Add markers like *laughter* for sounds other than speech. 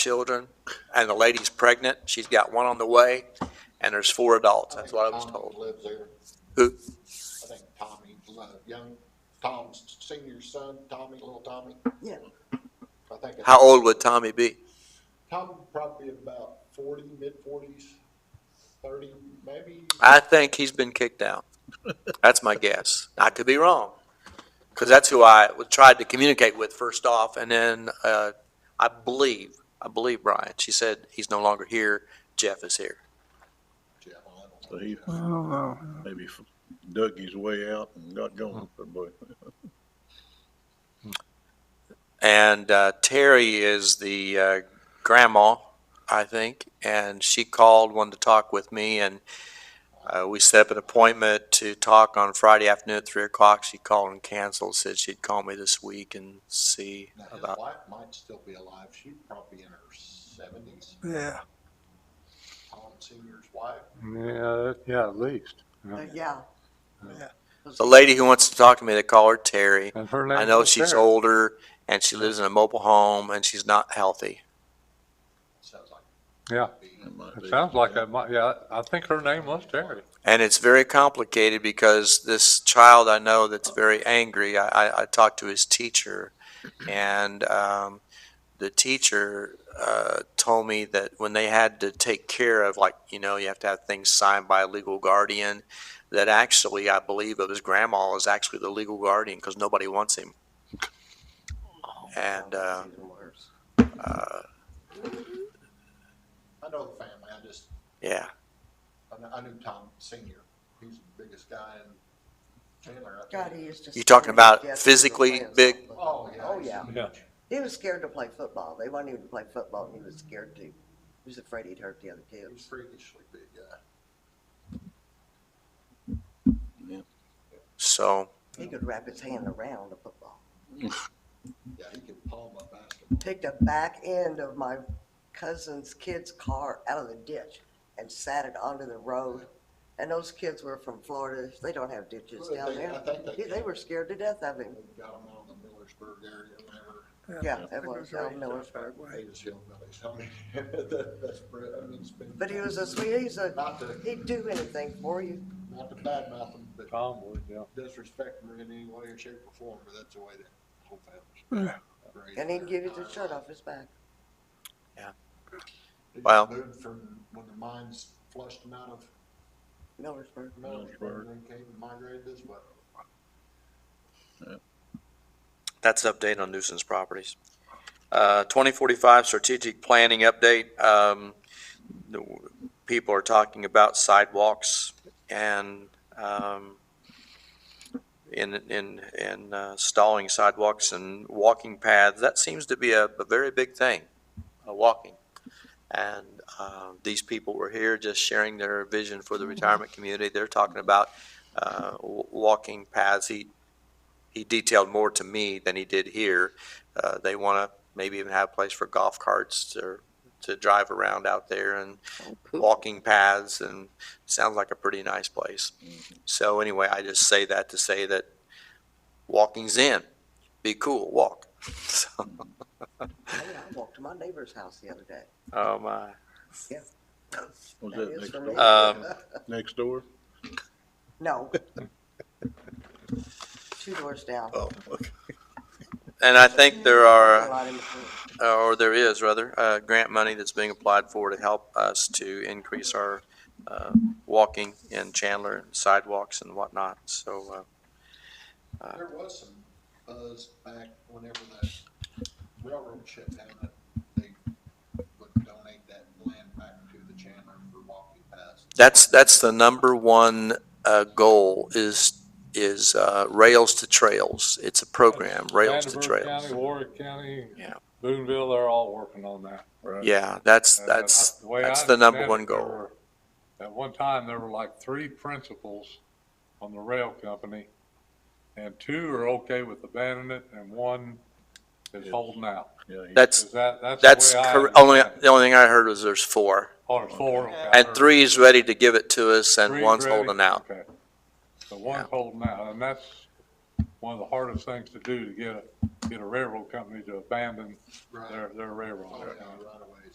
children, and the lady's pregnant. She's got one on the way, and there's four adults. That's what I was Tom told. Lives there. Who? I think Tommy, uh, young, Tom's senior son, Tommy, little Tommy. Yeah. I think. it's- How old would Tommy be? Tom probably about forty, mid forties, thirty, maybe. I think he's been kicked out. That's my guess. I could be wrong, because that's who I w- tried to communicate with first off, and then uh, I believe, I believe Brian. She said he's no longer here. Jeff is here. Yeah, I don't know. So he I don't know. maybe f- dug his way out and got going, *laughs* but And uh, Terry is the uh, grandma, I think, and she called, wanted to talk with me, and uh, we set up an appointment to talk on Friday afternoon at three o'clock. She called and canceled, said she'd call me this week and see Now, his about. wife might still be alive. She's probably in her seventies. Yeah. Tom Senior's wife. Yeah, yeah, at least. Yeah. The lady who wants to talk to me, they call her Terry. And her name. I know was she's Sarah. older and she lives in a mobile home and she's not healthy. Sounds like. Yeah, be- it might be. it sounds like that might, yeah, I think her name was Terry. And it's very complicated because this child I know that's very angry, I, I, I talked to his teacher, and um, the teacher uh, told me that when they had to take care of, like, you know, you have to have things signed by a legal guardian, that actually, I believe of his grandma is actually the legal guardian because nobody wants him. And uh, uh, I know the family. I just, yeah, I kn- I knew Tom Senior. He's the biggest guy in Chandler. I God, think. he used to. You talking about scare the physically kids. big? Oh, yeah. Oh, he's yeah. huge. Yeah. He was scared to play football. They wanted him to play football and he was scared to. He was afraid he'd hurt the other He's kids. freakishly big guy. so, He could wrap his hand around a football. Yeah, he can palm a basketball. Picked the back end of my cousin's kid's car out of the ditch and sat it onto the road. And those kids were from Florida. They don't have ditches Well, down they- I there. think they- They- They were scared to death of him. They've got him out in the Millersburg area, whenever, Yeah, it was Al Millersburg. Hadas hillbillies, I mean, *laughs* that- that's, br- I mean, it's been. But he was a sweet, he's a, Not to, he'd do anything for you. not to badmouth him, but Tom would, yeah. disrespect him in any way or shape or form, but that's the way that whole Yeah. family's. raised And he'd their give you the entire shirt life. off his back. He just Wow. Moved from, when the mines flushed him out of Millersburg. Millersburg, then came and migrated this way. That's an update on nuisance properties. Uh, 2045 strategic planning update. Um, the- People are talking about sidewalks and um, in, in, in uh, stalling sidewalks and walking paths. That seems to be a, a very big thing, uh, walking. And uh, these people were here just sharing their vision for the retirement community. They're talking about uh, w- walking paths. He, he detailed more to me than he did here. Uh, they want to maybe even have a place for golf carts to, to drive around out there and walking paths and sounds like a pretty nice place. So anyway, I just say that to say that walking's in. Be cool, walk. *laughs* So, Hey, I walked to my neighbor's house the other day. oh my. Was That that is next for door? me. Um, Next door? No. Two doors down. Oh, And I think there are. A lot in between. uh, or there is rather, uh, grant money that's being applied for to help us to increase our, uh, walking in Chandler and sidewalks and whatnot. So, Uh, There was some buzz back whenever that railroad shut down, that they would donate that land back to the Chandler for walking paths. that's, that's the number one, uh, goal is, is, uh, Rails to Trails. It's a program, Rails to Vanderbilt Trails. County, Warwick County. Yeah. Boonville, they're all working on that. right. Yeah, that's, And, uh, that's, the way I that's the number understand one it, there goal. were- At one time, there were like three principals on the rail company, and two are okay with abandoning it, and one is Yes. holding out. Yeah, he- That's, Is that, that's the that's, way I cor- only, understand the only thing I heard was there's four. it. Or four. okay, I And heard- three's ready to give it to us and Three's one's ready? holding out. Okay. So Yeah. one's holding out, and that's, one of the hardest things to do to get a, get a railroad company to abandon Right. their, their railroad. Oh, yeah, right away.